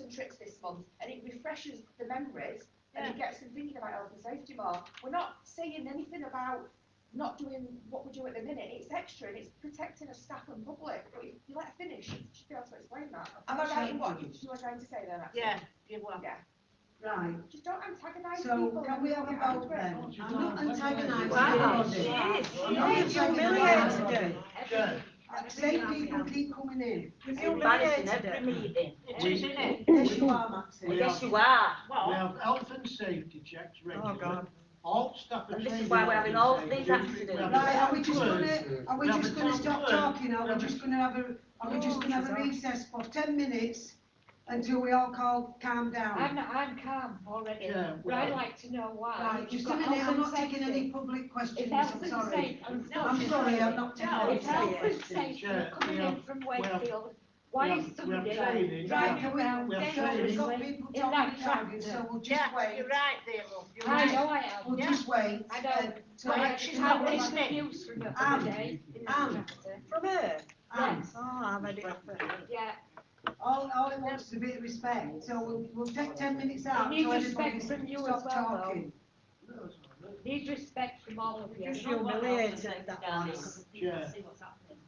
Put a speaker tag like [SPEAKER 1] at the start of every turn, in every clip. [SPEAKER 1] and tricks this month, and it refreshes the memories, and it gets them thinking about health and safety more. We're not saying anything about not doing what we do at the minute, it's extra, and it's protecting of staff and public, but if you let her finish, she should be able to explain that. Am I right in what you were trying to say there, actually?
[SPEAKER 2] Yeah, you will.
[SPEAKER 1] Yeah,
[SPEAKER 3] Right,
[SPEAKER 1] just don't antagonise people.
[SPEAKER 3] so can we have a vote then? I'm not
[SPEAKER 2] Wow,
[SPEAKER 3] antagonising
[SPEAKER 2] she
[SPEAKER 3] anybody.
[SPEAKER 2] is.
[SPEAKER 3] I'm not
[SPEAKER 2] She is
[SPEAKER 3] antagonising
[SPEAKER 2] humiliated.
[SPEAKER 3] anybody.
[SPEAKER 4] Good.
[SPEAKER 3] Same people keep coming in.
[SPEAKER 5] It's
[SPEAKER 3] Same
[SPEAKER 5] embarrassing
[SPEAKER 3] people.
[SPEAKER 5] every meeting.
[SPEAKER 2] She's in it.
[SPEAKER 3] Yes, you are, Maxine.
[SPEAKER 4] We
[SPEAKER 5] Yes,
[SPEAKER 4] have,
[SPEAKER 5] you are.
[SPEAKER 4] we
[SPEAKER 2] Well,
[SPEAKER 4] have health and safety checks
[SPEAKER 6] Oh,
[SPEAKER 4] regularly.
[SPEAKER 6] God.
[SPEAKER 4] All staff are
[SPEAKER 5] And
[SPEAKER 4] trained.
[SPEAKER 5] this is why we're having all
[SPEAKER 4] in
[SPEAKER 5] these
[SPEAKER 4] health and safety.
[SPEAKER 5] accidents.
[SPEAKER 4] We have
[SPEAKER 3] Right, are we just
[SPEAKER 4] experts.
[SPEAKER 3] gonna, are we
[SPEAKER 4] Yeah,
[SPEAKER 3] just
[SPEAKER 4] but
[SPEAKER 3] gonna
[SPEAKER 4] don't
[SPEAKER 3] stop
[SPEAKER 4] worry.
[SPEAKER 3] talking, are we
[SPEAKER 4] Yeah,
[SPEAKER 3] just
[SPEAKER 4] but-
[SPEAKER 3] gonna have a, are we just gonna have a recess for ten minutes until we all call, calm
[SPEAKER 7] I'm,
[SPEAKER 3] down?
[SPEAKER 7] I'm calm already,
[SPEAKER 4] Yeah,
[SPEAKER 7] but I'd
[SPEAKER 4] well.
[SPEAKER 7] like to know why.
[SPEAKER 3] Right,
[SPEAKER 7] you've
[SPEAKER 3] just a
[SPEAKER 7] got
[SPEAKER 3] minute, I'm
[SPEAKER 7] health
[SPEAKER 3] not
[SPEAKER 7] and
[SPEAKER 3] taking any
[SPEAKER 7] safety.
[SPEAKER 3] public
[SPEAKER 7] If
[SPEAKER 3] questions,
[SPEAKER 7] health
[SPEAKER 3] I'm
[SPEAKER 7] and
[SPEAKER 3] sorry.
[SPEAKER 7] safety, I'm
[SPEAKER 2] No,
[SPEAKER 7] sorry.
[SPEAKER 3] I'm sorry, I'm not taking
[SPEAKER 2] No,
[SPEAKER 3] any.
[SPEAKER 7] If health
[SPEAKER 3] public
[SPEAKER 7] and
[SPEAKER 3] questions.
[SPEAKER 7] safety
[SPEAKER 4] Yeah,
[SPEAKER 7] are coming
[SPEAKER 4] we
[SPEAKER 7] in
[SPEAKER 4] have-
[SPEAKER 7] from
[SPEAKER 4] we have-
[SPEAKER 7] Wakefield, why
[SPEAKER 4] we
[SPEAKER 7] is
[SPEAKER 4] have- we have
[SPEAKER 7] somebody
[SPEAKER 4] training.
[SPEAKER 7] driving
[SPEAKER 3] Yeah.
[SPEAKER 7] around
[SPEAKER 4] We have
[SPEAKER 3] So we've got
[SPEAKER 7] dangerously?
[SPEAKER 3] people
[SPEAKER 7] in that
[SPEAKER 3] talking about it,
[SPEAKER 7] tractor.
[SPEAKER 3] so we'll just
[SPEAKER 2] yeah,
[SPEAKER 3] wait,
[SPEAKER 2] you're right there, love. You're
[SPEAKER 7] I
[SPEAKER 2] right.
[SPEAKER 7] know I am.
[SPEAKER 3] we'll just wait.
[SPEAKER 7] I know.
[SPEAKER 3] uh, till
[SPEAKER 7] But
[SPEAKER 3] next
[SPEAKER 7] she's
[SPEAKER 3] time.
[SPEAKER 7] had
[SPEAKER 2] not
[SPEAKER 7] this Um,
[SPEAKER 2] listening.
[SPEAKER 7] abuse from the
[SPEAKER 3] Anne,
[SPEAKER 7] other day in that
[SPEAKER 3] Anne.
[SPEAKER 7] tractor.
[SPEAKER 6] From her?
[SPEAKER 3] Anne,
[SPEAKER 6] Oh, I've had it off her.
[SPEAKER 7] Yeah,
[SPEAKER 3] All, all it wants is a bit of respect, so we'll, we'll take ten minutes out.
[SPEAKER 7] We need
[SPEAKER 3] so everybody
[SPEAKER 7] respect from you
[SPEAKER 3] stop
[SPEAKER 7] as well, though.
[SPEAKER 3] talking.
[SPEAKER 7] need respect from all of you.
[SPEAKER 6] She's humiliated, that was.
[SPEAKER 4] Yeah.
[SPEAKER 7] See what's happening.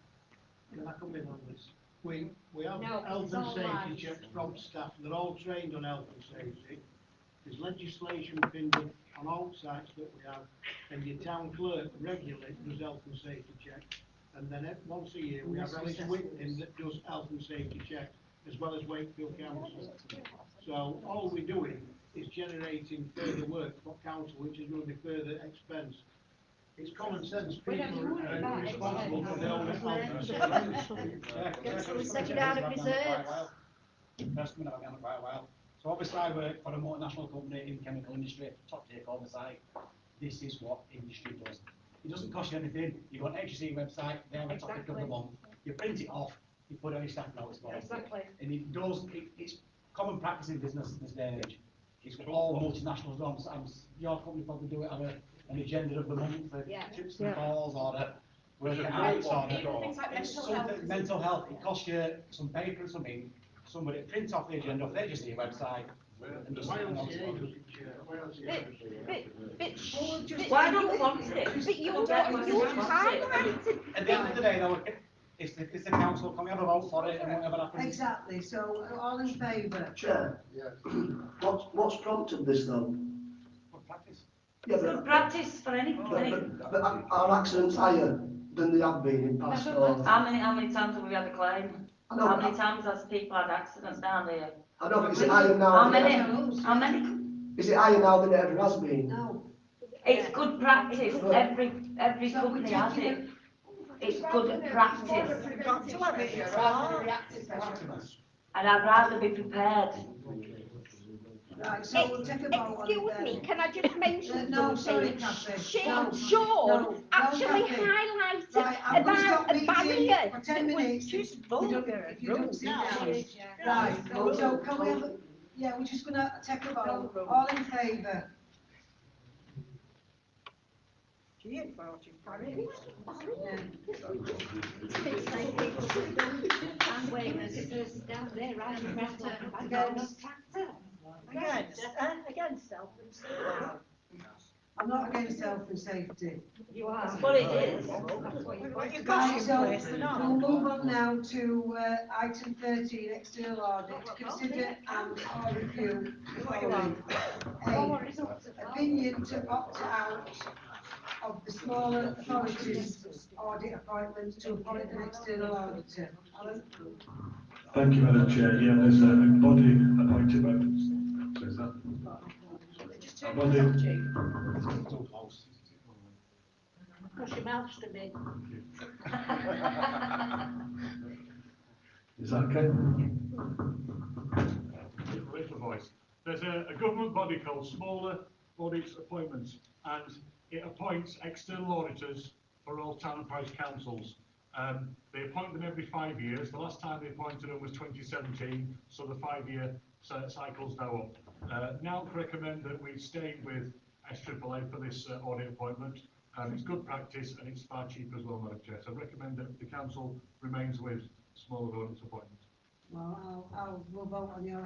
[SPEAKER 4] Can I come in on this? We, we have
[SPEAKER 7] No,
[SPEAKER 4] health
[SPEAKER 7] it's
[SPEAKER 4] and
[SPEAKER 7] all
[SPEAKER 4] safety
[SPEAKER 7] lies.
[SPEAKER 4] checks from staff, they're all trained on health and safety. There's legislation being done on all sites that we have, and your town clerk regularly does health and safety checks. And then ev- once a year, we have Alice Whitman that does health and safety checks, as well as Wakefield Council. So all we're doing is generating further work for council, which is going to be further expense. It's common sense,
[SPEAKER 7] We
[SPEAKER 4] people
[SPEAKER 7] don't do it
[SPEAKER 4] are
[SPEAKER 7] about it.
[SPEAKER 4] responsible for their own health and safety.
[SPEAKER 8] So we set it out of reserves. First coming up again quite a while. So obviously I work for a multinational company in the chemical industry, top tier all the site. This is what industry does. It doesn't cost you anything. You go on HSE website, they have a topic of the
[SPEAKER 7] Exactly.
[SPEAKER 8] month. You print it off, you put it on your staff notes board.
[SPEAKER 7] Exactly.
[SPEAKER 8] And it does, it, it's common practice in business in this day and age. It's what all multinationals do, I'm s- I'm, s- your company probably do it on a, an agenda of the month, for
[SPEAKER 7] Yeah.
[SPEAKER 8] chips and balls or a, whether it's out or a-
[SPEAKER 1] Even things like
[SPEAKER 8] it's
[SPEAKER 1] mental health.
[SPEAKER 8] something, mental health, it costs you some paper and some ink, somebody prints off the agenda, they just see your website. and just-
[SPEAKER 4] Why don't you Why don't you
[SPEAKER 5] Why don't we want it?
[SPEAKER 2] But you
[SPEAKER 5] Well,
[SPEAKER 2] don't-
[SPEAKER 5] why
[SPEAKER 2] you
[SPEAKER 5] don't we want
[SPEAKER 2] can't
[SPEAKER 5] it?
[SPEAKER 8] At the end of the day though, if- if, the- if the council, can we have a vote for it and whatever happens?
[SPEAKER 3] Exactly, so all in favour?
[SPEAKER 9] Chair, what's, what's prompted this though?
[SPEAKER 8] Good practice.
[SPEAKER 9] Yeah,
[SPEAKER 5] Good
[SPEAKER 9] but,
[SPEAKER 5] practice for any
[SPEAKER 9] but,
[SPEAKER 5] company.
[SPEAKER 9] but- but are accidents higher than they have been in past or?
[SPEAKER 5] How many, how many times have we had a claim?
[SPEAKER 9] I know,
[SPEAKER 5] How many
[SPEAKER 9] I
[SPEAKER 5] times has people had accidents down there?
[SPEAKER 9] know, but is it higher now?
[SPEAKER 5] How
[SPEAKER 9] than it-
[SPEAKER 5] many? How many?
[SPEAKER 9] Is it higher now than it ever has been?
[SPEAKER 3] No.
[SPEAKER 5] It's good practice,
[SPEAKER 9] Yeah.
[SPEAKER 5] every, every
[SPEAKER 3] So we're
[SPEAKER 5] company has
[SPEAKER 3] taking
[SPEAKER 5] it.
[SPEAKER 3] it-
[SPEAKER 5] It's good practice.
[SPEAKER 6] Got to have it, it's hard.
[SPEAKER 5] And I'd rather be prepared.
[SPEAKER 3] Right, so we'll take a vote on
[SPEAKER 2] Excuse me,
[SPEAKER 3] it
[SPEAKER 2] can I just
[SPEAKER 3] then.
[SPEAKER 2] mention
[SPEAKER 3] Uh, No, sorry,
[SPEAKER 2] something?
[SPEAKER 3] Cathy.
[SPEAKER 2] She,
[SPEAKER 3] No, no,
[SPEAKER 2] Sean
[SPEAKER 3] no,
[SPEAKER 2] actually
[SPEAKER 3] Cathy.
[SPEAKER 2] highlighted
[SPEAKER 3] Right, I'm gonna
[SPEAKER 2] about
[SPEAKER 3] stop
[SPEAKER 2] a
[SPEAKER 3] meeting
[SPEAKER 2] barrier
[SPEAKER 3] for
[SPEAKER 2] that
[SPEAKER 3] ten
[SPEAKER 2] was
[SPEAKER 3] minutes.
[SPEAKER 6] She's
[SPEAKER 3] You don't-
[SPEAKER 6] vulgar
[SPEAKER 3] if
[SPEAKER 6] and
[SPEAKER 3] you don't
[SPEAKER 6] rude.
[SPEAKER 3] sit down.
[SPEAKER 7] Yeah.
[SPEAKER 3] Right, so can we have, a- yeah, we're just gonna take a vote, all in favour?
[SPEAKER 6] She ain't forty.
[SPEAKER 3] Yeah.
[SPEAKER 7] I'm waiting, there's down there, right in front of, I got a
[SPEAKER 3] Against.
[SPEAKER 7] tractor.
[SPEAKER 6] Against, uh, against self.
[SPEAKER 3] I'm not against health and safety.
[SPEAKER 7] You are.
[SPEAKER 5] That's what it is.
[SPEAKER 7] That's what you've got.
[SPEAKER 3] Right,
[SPEAKER 6] You've got
[SPEAKER 3] so-
[SPEAKER 6] someplace, they're not.
[SPEAKER 3] We'll move on now to, uh, item thirteen, external audit, to consider and or review.
[SPEAKER 6] What do you want?
[SPEAKER 3] A,
[SPEAKER 7] Our results are out.
[SPEAKER 3] opinion to opt out of the smaller authorities audit appointments to appoint an external auditor. Alan?
[SPEAKER 10] Thank you, Madam Chair. Yeah, there's a a body appointed by, so is that
[SPEAKER 1] Just turn it off, Jake.
[SPEAKER 8] It's too close.
[SPEAKER 7] Push your mouth to me.
[SPEAKER 10] is that okay?
[SPEAKER 11] with the voice. There's a, a government body called Smaller Audit Appointments, and it appoints external auditors for all town and parish councils. Um, they appoint them every five years. The last time they appointed them was 2017, so the five-year cy- cycle's now up. Uh, now recommend that we stay with SAAA for this uh, audit appointment. Um, it's good practice and it's far cheaper as well, Madam Chair. So I recommend that the council remains with Smaller Audit Appointments.
[SPEAKER 3] Well, I'll, I'll, we'll vote on the